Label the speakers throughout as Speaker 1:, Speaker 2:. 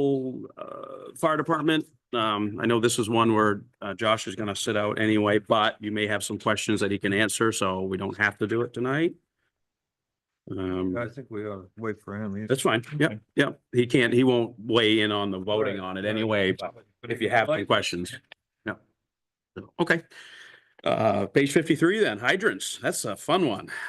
Speaker 1: Rural uh, Fire Department. Um, I know this is one where uh, Josh is going to sit out anyway, but you may have some questions that he can answer, so we don't have to do it tonight. Um,
Speaker 2: I think we ought to wait for him. He's-
Speaker 1: that's fine. Yep, yep. He can't, he won't weigh in on the voting
Speaker 2: Right,
Speaker 1: on it
Speaker 2: right.
Speaker 1: anyway, but
Speaker 2: But
Speaker 1: if you have any
Speaker 2: like-
Speaker 1: questions. Yeah. So, Okay. Uh, page fifty-three then, hydrants. That's a fun one.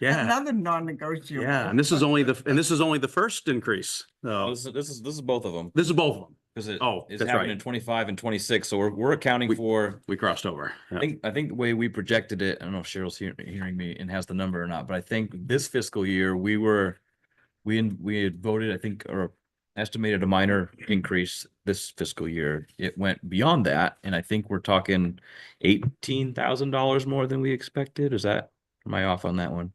Speaker 1: Yeah,
Speaker 3: Another non-negotiable.
Speaker 1: yeah. And this is only the, and this is only the first increase. So
Speaker 4: Oh, This is, this is, this is both of them,
Speaker 1: this is both of them.
Speaker 4: because it
Speaker 1: Oh,
Speaker 4: is
Speaker 1: that's
Speaker 4: happening
Speaker 1: right.
Speaker 4: in twenty-five and twenty-six, so we're, we're accounting
Speaker 1: We-
Speaker 4: for,
Speaker 1: We crossed over.
Speaker 4: I think, I think the way we projected it, I don't know if Cheryl's hearing, hearing me and has the number or not, but I think this fiscal year, we were, we, in- we had voted, I think, or estimated a minor increase this fiscal year. It went beyond that, and I think we're talking eighteen thousand dollars more than we expected. Is that, am I off on that one?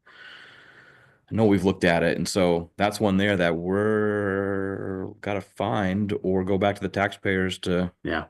Speaker 4: I know we've looked at it, and so that's one there that we're gotta find or go back to the taxpayers to
Speaker 1: Yeah.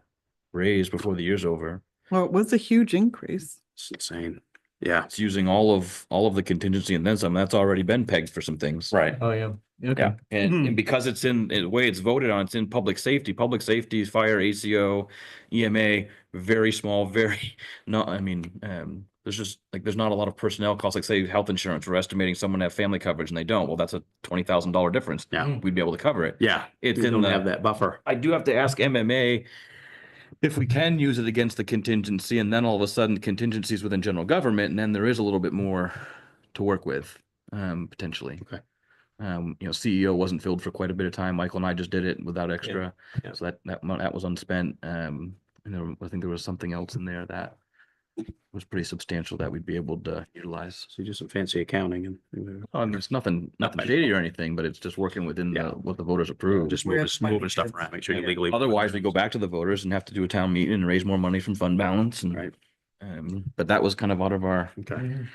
Speaker 4: raise before the year's over.
Speaker 3: Well, it was a huge increase.
Speaker 1: It's insane. Yeah.
Speaker 4: It's using all of all of the contingency and then some. That's already been pegged for some things.
Speaker 1: Right.
Speaker 2: Oh, yeah.
Speaker 4: Yeah, and,
Speaker 2: Mhm.
Speaker 4: and because it's in, the way it's voted on, it's in public safety, public safety, fire, ACO, EMA, E very small, very, not, I mean, um, there's just, like, there's not a lot of personnel costs, like say health insurance, we're estimating someone to have family coverage and they don't, well, that's a twenty thousand dollar difference.
Speaker 1: Yeah.
Speaker 4: We'd be able to cover it.
Speaker 1: Yeah.
Speaker 4: It's
Speaker 1: You
Speaker 4: in
Speaker 1: don't have
Speaker 4: the,
Speaker 1: that buffer.
Speaker 4: I do have to ask MMA if we can use it against the contingency and then all of a sudden contingencies within general government, and then there is a little bit more to work with, um, potentially.
Speaker 1: Okay.
Speaker 4: Um, you know, CEO wasn't filled for quite a bit of time. Michael and I just did it without extra.
Speaker 1: yeah.
Speaker 4: So that, that, mo- that was unspent. Um, and there, I think there was something else in there that was pretty substantial that we'd be able to utilize.
Speaker 1: So you do some fancy accounting and
Speaker 4: Oh, and it's nothing, nothing
Speaker 1: Nothing.
Speaker 4: shady or anything, but it's just working within the,
Speaker 1: Yeah.
Speaker 4: what the voters approved.
Speaker 1: just
Speaker 3: Where
Speaker 1: moving,
Speaker 3: it's my
Speaker 1: moving stuff
Speaker 3: kids.
Speaker 1: around, make sure you
Speaker 4: Yeah.
Speaker 1: legally.
Speaker 4: Otherwise, we go back to the voters and have to do a town meeting and raise more money from fund balance and.
Speaker 1: Right.
Speaker 4: Um, but that was kind of out of our.
Speaker 1: Okay.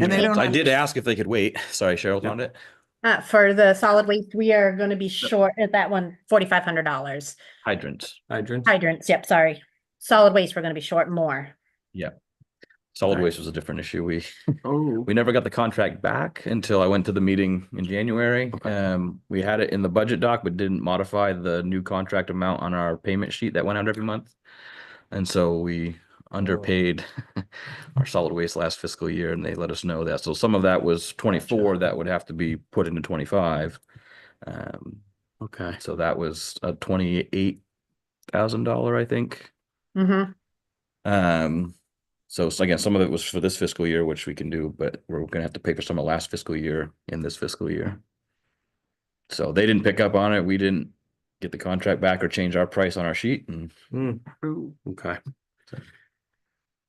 Speaker 3: And they
Speaker 4: hands.
Speaker 3: don't
Speaker 4: I did ask if they could wait. Sorry, Cheryl
Speaker 1: Yeah.
Speaker 4: found it.
Speaker 5: Uh, for the solid waste, we are gonna be short at that one, forty-five hundred dollars.
Speaker 4: Hydrants,
Speaker 2: Hydrants.
Speaker 5: Hydrants, yep, sorry. Solid waste, we're gonna be short more.
Speaker 4: solid
Speaker 1: Right.
Speaker 4: waste was a different issue. We,
Speaker 3: Oh.
Speaker 4: we never got the contract back until I went to the meeting in January. Um, we had it in the budget doc, but didn't modify the new contract amount on our payment sheet that went out every month. And so we underpaid our solid waste last fiscal year and they let us know that. So some of that was twenty-four that would have to be put into twenty-five. Um,
Speaker 1: Okay.
Speaker 4: so that was a twenty-eight thousand dollar, I think.
Speaker 5: Mm-hmm.
Speaker 4: Um, so s- again, some of it was for this fiscal year, which we can do, but we're gonna have to pay for some of last fiscal year and this fiscal year. So they didn't pick up on it. We didn't get the contract back or change our price on our sheet and
Speaker 1: Okay.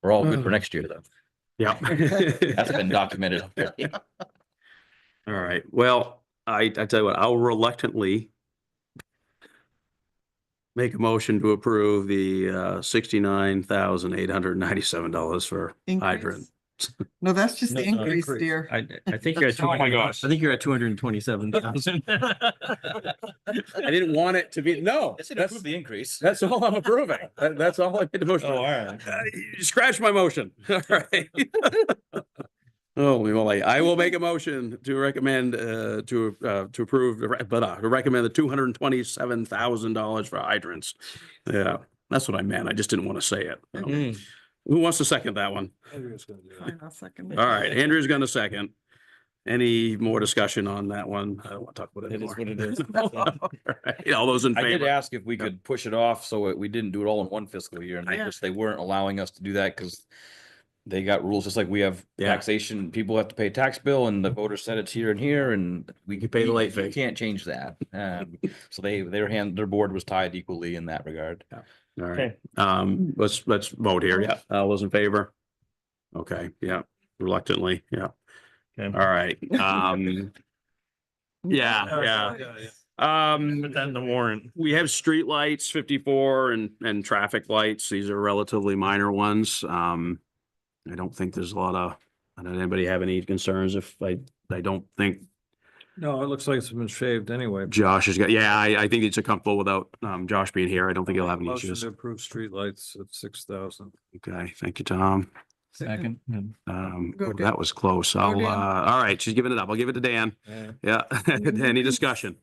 Speaker 4: we're all
Speaker 1: Hmm.
Speaker 4: good for next year though.
Speaker 1: Yeah.
Speaker 4: That's been documented.
Speaker 1: All right. Well, I, I tell you what, I'll reluctantly make a motion to approve the, uh, sixty-nine thousand eight hundred ninety-seven dollars for hydrant.
Speaker 3: Increase. No, that's just
Speaker 6: No,
Speaker 3: the
Speaker 6: no,
Speaker 3: increase,
Speaker 6: increase.
Speaker 3: dear.
Speaker 6: I, I think you're at.
Speaker 2: Oh my
Speaker 6: 200
Speaker 2: gosh.
Speaker 6: I think you're at two hundred and twenty-seven thousand.
Speaker 1: I didn't want it to be, no, that's,
Speaker 4: the increase.
Speaker 1: that's all I'm approving. That- That's all I made the motion. on. Uh, you Scratch my motion. All right. Holy moly. I will make a motion to recommend, uh, to, uh, to approve, the re- but, uh, to recommend the two hundred and twenty-seven thousand dollars for hydrants. Yeah, that's what I meant. I just didn't want to say it.
Speaker 4: Mm.
Speaker 1: Who wants to second that one?
Speaker 3: Fine, I'll second it.
Speaker 1: All right, Andrew's gonna second. Any more discussion on that one? I don't want to talk about it
Speaker 4: It is
Speaker 1: anymore.
Speaker 4: what it is.
Speaker 1: All right, All those in
Speaker 4: I did
Speaker 1: favor?
Speaker 4: ask if we
Speaker 1: Yeah.
Speaker 4: could push it off so it- we didn't do it all in one fiscal year and they
Speaker 1: Yeah.
Speaker 4: just, they weren't allowing us to do that because they got rules, just like we have
Speaker 1: Yeah.
Speaker 4: taxation, people have to pay tax bill and the voter said it's here and here and we
Speaker 1: You pay the
Speaker 4: we-
Speaker 1: late
Speaker 4: we
Speaker 1: fee.
Speaker 4: Can't change that. Um, so they, their hand, their board was tied equally in that regard.
Speaker 1: All right, um, let's, let's vote here. Yeah, all those in favor? Okay, yeah, reluctantly, yeah. All right, um,
Speaker 2: Oh,
Speaker 1: yeah, yeah. Um,
Speaker 6: Then the warrant.
Speaker 1: we have street lights, fifty-four and, and traffic lights. These are relatively minor ones. Um, I don't think there's a lot of, I don't, anybody have any concerns if I, I don't think
Speaker 2: No, it looks like it's been shaved anyway.
Speaker 1: Josh has got, yeah, I, I think it's a comfortable without, um, Josh being here. I don't think he'll have any
Speaker 2: Motion
Speaker 1: issues.
Speaker 2: to approve streetlights at six thousand.
Speaker 1: Okay, thank you, Tom.
Speaker 3: Second.
Speaker 1: Um,
Speaker 3: Go
Speaker 1: oh,
Speaker 3: Dan.
Speaker 1: that was close. I'll,
Speaker 3: Dan.
Speaker 1: uh, all right, she's giving it up. I'll give it to Dan. Yeah,
Speaker 3: Mhm.
Speaker 1: any discussion?